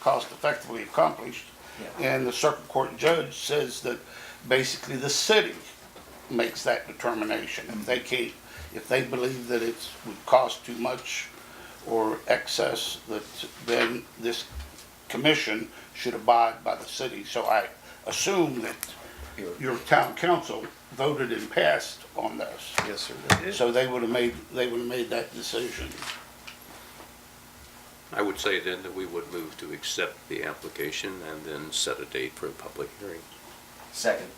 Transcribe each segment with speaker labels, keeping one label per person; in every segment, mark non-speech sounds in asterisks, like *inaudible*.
Speaker 1: cost effectively accomplished. And the circuit court judge says that basically the city makes that determination. If they can't, if they believe that it's, would cost too much or excess, that then this commission should abide by the city. So I assume that your town council voted and passed on this.
Speaker 2: Yes, sir. that-
Speaker 1: So they would have made, they would have made that decision.
Speaker 3: I would say then that we would move to accept the application and then set a date for a public hearing.
Speaker 4: Second.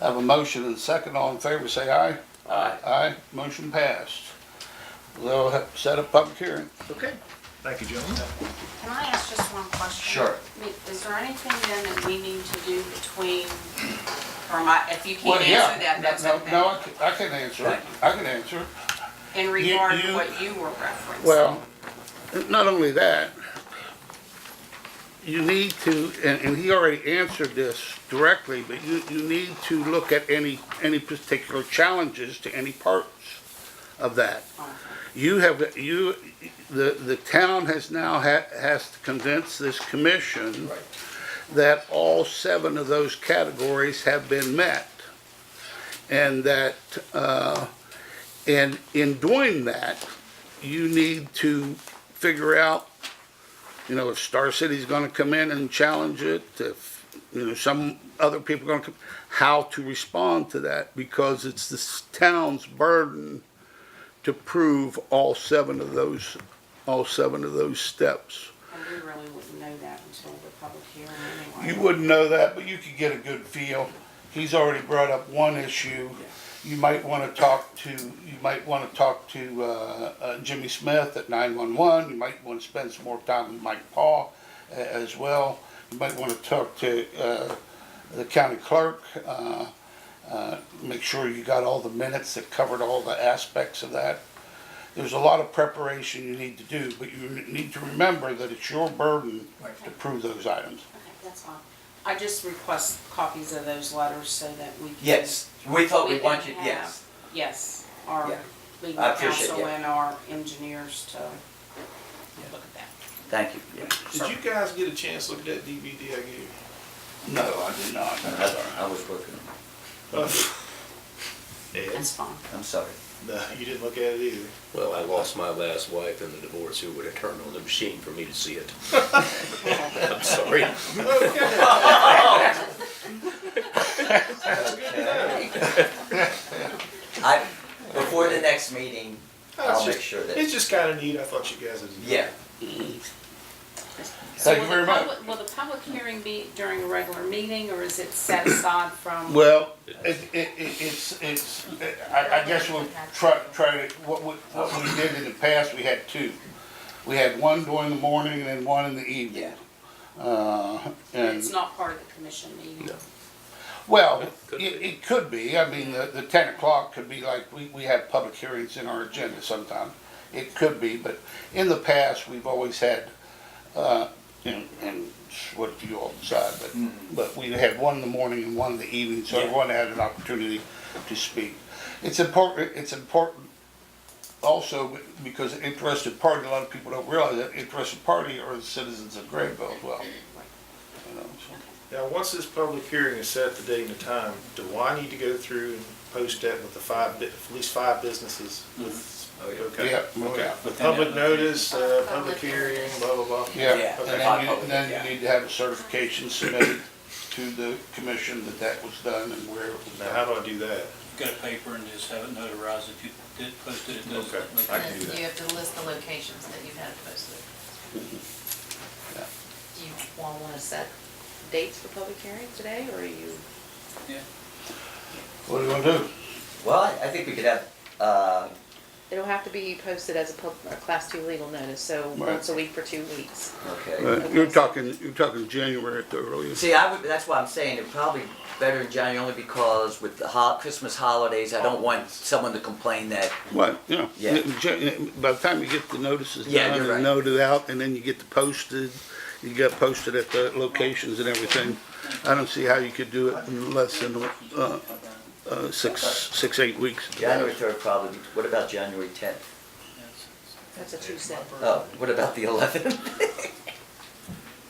Speaker 1: I Have a motion and a second, all in favor, say aye.
Speaker 3: Aye.
Speaker 1: Aye, motion passed. They'll have- set a public hearing.
Speaker 2: Okay. Thank you, gentlemen.
Speaker 5: Can I ask just one question?
Speaker 4: Sure.
Speaker 5: I mean, Is there anything then that we need to do between, or my, if you
Speaker 1: Well,
Speaker 5: can't
Speaker 1: yeah,
Speaker 5: answer that, that's
Speaker 1: no-
Speaker 5: okay?
Speaker 1: No, I can- I can answer, it. I can answer. it.
Speaker 5: In regard to
Speaker 1: you-
Speaker 5: what you were referencing?
Speaker 1: Well, not only that, you need to, and, and he already answered this directly, but you, you need to look at any, any particular challenges to any parts of that. You have, you, the, the town has now ha, has to convince this commission
Speaker 4: Right.
Speaker 1: that all seven of those categories have been met. And that, uh, and in doing that, you need to figure out, you know, if Star City's gonna come in and challenge it, if, you know, some other people are gonna come, how to respond to that, because it's this town's burden to prove all seven of those, all seven of those steps.
Speaker 5: And we really wouldn't know that until the public hearing anyway.
Speaker 1: You wouldn't know that, but you could get a good feel. He's already brought up one issue. You might want to talk to, you might want to talk to uh, uh, Jimmy Smith at 911. You might want to spend some more time with Mike Paul a- as well. You might want to talk to uh, the county clerk. uh, uh, Make sure you got all the minutes that covered all the aspects of that. There's a lot of preparation you need to do, but you need to remember that it's your burden to prove those items.
Speaker 5: Okay, that's fine. I just request copies of those letters so that we can.
Speaker 4: Yes, we
Speaker 1: Oh,
Speaker 4: thought we
Speaker 5: can
Speaker 4: wanted,
Speaker 5: have-
Speaker 4: yes.
Speaker 5: Yes, our
Speaker 4: Yeah.
Speaker 5: legal
Speaker 4: I appreciate
Speaker 5: counsel
Speaker 4: that.
Speaker 5: and our engineers to look at that.
Speaker 4: Thank you, yeah.
Speaker 6: Did you guys get a chance to look at that DVD I gave you?
Speaker 1: No, I did not.
Speaker 4: No, I- I was working, on
Speaker 6: Ed?
Speaker 5: That's fine.
Speaker 4: it. I'm sorry.
Speaker 6: No, you didn't look at it *laughs* either.
Speaker 3: Well, I lost my last wife in the divorce who would have turned on the machine for me to see it. *laughs* I'm sorry.
Speaker 4: I, before the next meeting, I'll
Speaker 6: That's
Speaker 4: make
Speaker 6: just-
Speaker 4: sure that,
Speaker 6: Oh, It's just kind of neat. I thought you guys would.
Speaker 4: yeah,
Speaker 5: So
Speaker 1: Thank you
Speaker 5: will the
Speaker 1: very much.
Speaker 5: public- Will the public hearing be during a regular meeting, or is it set aside from?
Speaker 1: Well, it, it, it- it's, it's, I, I guess we'll try, try to, what we, what we did in the past, we had two. We had one during the morning and then one in the evening.
Speaker 4: yeah.
Speaker 1: Uh, and,
Speaker 5: It's not part of the commission meeting?
Speaker 3: No.
Speaker 1: well,
Speaker 3: It
Speaker 1: it,
Speaker 3: could be.
Speaker 1: it could be, I mean, the, the ten o'clock could be like, we, we have public hearings in our agenda sometime. It could be, but in the past, we've always had, uh, and, and it's what you all decide, but,
Speaker 3: Mm-hmm.
Speaker 1: but we had one in the morning and one in the evening, so
Speaker 4: Yeah.
Speaker 1: everyone had an opportunity to speak. It's important, it's important also because an interested party, a lot of people don't realize that interested party are the citizens of Grayville as well. You know, so.
Speaker 6: Now, once this public hearing is set, the date and the time, do I need to go through and post that with the five, bu- at least five businesses? With
Speaker 4: Oh, yeah.
Speaker 6: Okay.
Speaker 1: Yeah, oh,
Speaker 6: Okay.
Speaker 1: yeah.
Speaker 6: With public notice, uh, public hearing, blah, blah, blah.
Speaker 1: Yeah, and
Speaker 4: Yeah,
Speaker 6: okay.
Speaker 1: then you,
Speaker 4: Okay.
Speaker 1: then you need to have a certification submitted to the commission that that was done and where it was
Speaker 6: Now, how
Speaker 1: done.
Speaker 6: do I do that?
Speaker 7: Got a paper and just have it notarized if you did post it, it does.
Speaker 6: Okay,
Speaker 7: make
Speaker 6: I
Speaker 7: it-
Speaker 6: can do that.
Speaker 8: You have to list the locations that you've had it posted.
Speaker 1: Yeah.
Speaker 8: Do you want, want to set dates for public hearing today, or are you?
Speaker 1: What do you want to do?
Speaker 4: Well, I I think we could have, uh,
Speaker 8: It'll have to be posted as a pub, a class two legal notice, so
Speaker 1: Right.
Speaker 8: once a week for two weeks.
Speaker 4: okay.
Speaker 1: You're talking, you're talking January at the earliest.
Speaker 4: See, I would, that's why I'm saying it probably better in January only because with the hol- Christmas holidays, I don't want someone to complain that,
Speaker 1: Well, you know,
Speaker 4: Yeah.
Speaker 1: Jan- by the time you get the notices
Speaker 4: Yeah,
Speaker 1: done
Speaker 4: you're
Speaker 1: and
Speaker 4: right.
Speaker 1: noted out, and then you get the posted, you got posted at the locations and everything. I don't see how you could do it in less than, uh, uh, six, six, eight weeks.
Speaker 4: January third probably, what about January tenth?
Speaker 8: That's a Tuesday.
Speaker 4: Oh, what about the eleventh?